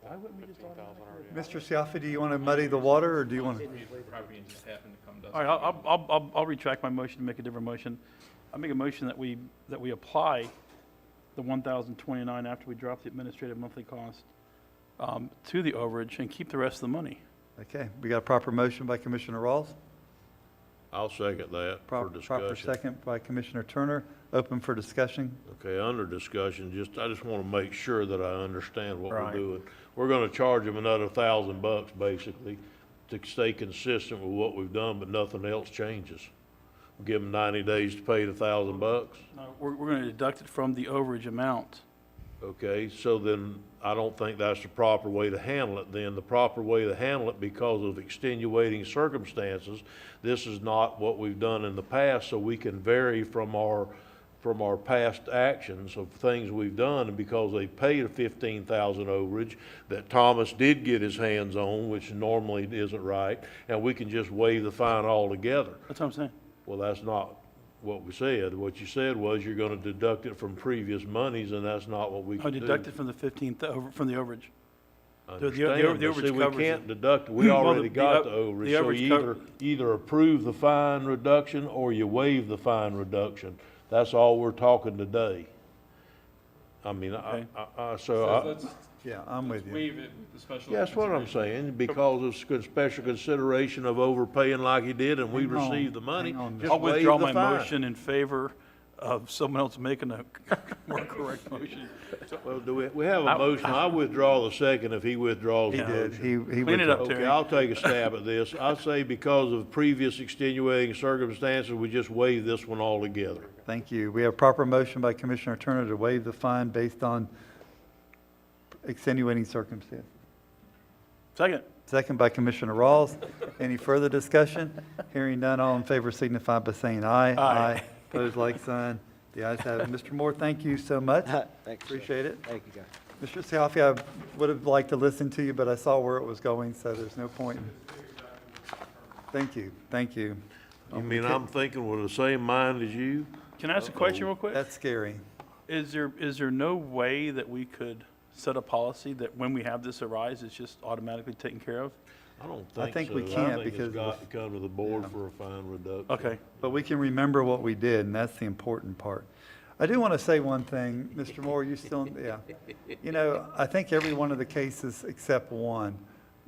Why wouldn't we just automatically? Mr. Siafi, do you want to muddy the water, or do you want to? Property just happened to come to us. All right, I'll, I'll- I'll, I'll retract my motion and make a different motion. I make a motion that we, that we apply the 1,029 after we drop the administrative monthly cost um, to the overage and keep the rest of the money. Okay, we got a proper motion by Commissioner Rawls, I'll second that for prop- proper discussion. second by Commissioner Turner, open for discussion. Okay, under discussion, just, I just want to make sure that I understand what we're Right. doing. We're going to charge them another thousand bucks, basically, to stay consistent with what we've done, but nothing else changes. Give them ninety days to pay the thousand bucks, No, We're, we're going to deduct it from the overage amount. okay? So then, I don't think that's the proper way to handle it then. The proper way to handle it, because of extenuating circumstances, this is not what we've done in the past, so we can vary from our, from our past actions of things we've done, and because they paid a fifteen thousand overage that Thomas did get his hands on, which normally isn't right, and we can just waive the fine altogether. That's what I'm saying. Well, that's not what we said. What you said was you're gonna deduct it from previous monies, and that's not what we I can do. Oh, deduct it from the 15th, over- from the overage. I the- the- the overage understand, but see, covers we it. can't deduct, we Well, the- already the got up- the the overage, so overage you cov- either, either approve the fine reduction or you waive the fine reduction. That's all we're talking today. I mean, I, Okay. I, I, so Says I, let's- Yeah, I'm let's with you. waive it with the special. yeah, that's what I'm consideration. saying, because of sc- special consideration of overpaying like he did, and we Hang on, received the money, hang on, just I'll waive withdraw the my fine. motion in favor of someone else making a more correct motion. Well, do we, we have I- a motion, I withdraw the second if he withdraws He the did, he, motion. he Clean it up, withdrew. Terry. Okay, I'll take a stab at this, I say because of previous extenuating circumstances, we just waive this one altogether. Thank you. We have proper motion by Commissioner Turner to waive the fine based on extenuating circumstance. Second. Second by Commissioner Rawls. Any further discussion? Hearing none, all in favor signify by saying aye. Aye. Pose like sign. The ayes have it. Mr. Moore, thank you so much. Uh, Thanks. sir. Appreciate it. Thank you, guys. Mr. Siafi, I would have liked to listen to you, but I saw where it was going, so there's no point. Thank you, thank you. You mean I'm thinking with the same mind as you? Can I ask a question real quick? That's scary. Is there, is there no way that we could set a policy that when we have this arise, it's just automatically taken care of? I don't think so. I think we can't think it's because of the- got to come to the board for a fine reduction. Okay. But we can remember what we did, and that's the important part. I do want to say one thing, Mr. Moore, you still, yeah. You know, I think every one of the cases except one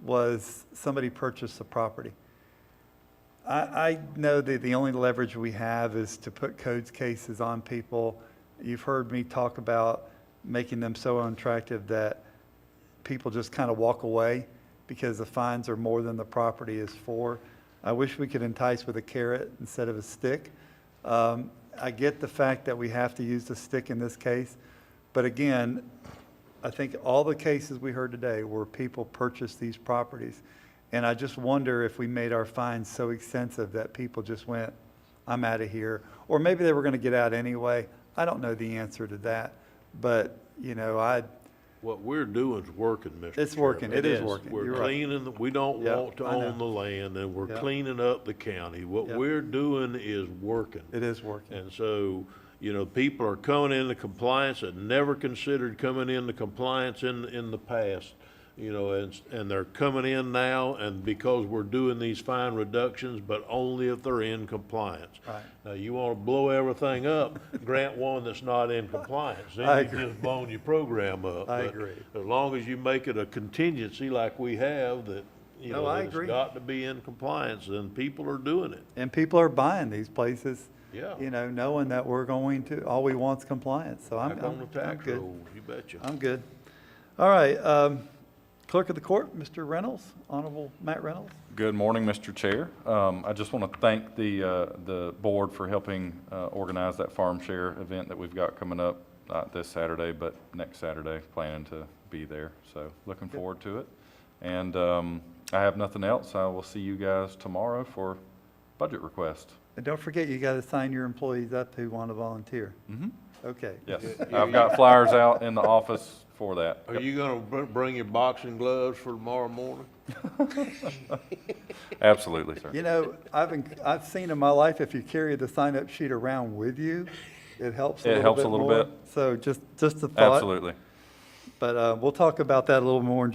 was somebody purchased the property. I, I know that the only leverage we have is to put codes cases on people. You've heard me talk about making them so unattractive that people just kind of walk away because the fines are more than the property is for. I wish we could entice with a carrot instead of a stick. Um, I get the fact that we have to use the stick in this case, but again, I think all the cases we heard today were people purchased these properties. And I just wonder if we made our fines so extensive that people just went, I'm out of here. Or maybe they were going to get out anyway. I don't know the answer to that, but, you know, I, What we're doing is working, Mr. It's working. Chairman. It is working. You're We're right. cleaning, the- we don't Yeah, want to I know. own the land, and we're Yeah. cleaning up the county. What Yeah. we're doing is working. it is working. And so, you know, people are coming into compliance that never considered coming into compliance in, in the past. You know, and, and they're coming in now and because we're doing these fine reductions, but only if they're in compliance. Right. Now, you wanna blow everything up, grant one that's not in compliance, I then you've just blown your program up. I But agree. As long as you make it a contingency like we have that, you No, know, I that it's agree. got to be in compliance, then people are doing it. And people are buying these places. Yeah. You know, knowing that we're going to, all we want's compliance, so I'm, Back on I'm, the I'm tax good. rolls, you betcha. I'm good. All right, um, Clerk of the Court, Mr. Reynolds, Honorable Matt Reynolds. Good morning, Mr. Chair. Um, I just want to thank the, uh, the board for helping uh, organize that farm share event that we've got coming up, not this Saturday, but next Saturday, planning to be there. So looking forward to it. And um, I have nothing else. I will see you guys tomorrow for budget request. And don't forget, you got to sign your employees up who want to volunteer. Mm-hmm. Mhm. Okay. Yes, I've got flyers out in the office for that. Are you gonna br- bring your boxing gloves for tomorrow morning? Absolutely, sir. You know, I've, been- I've seen in my life, if you carry the sign-up sheet around with you, it helps a It little helps a bit little more. bit. So just, just a thought. Absolutely. But uh, we'll talk about that a little more in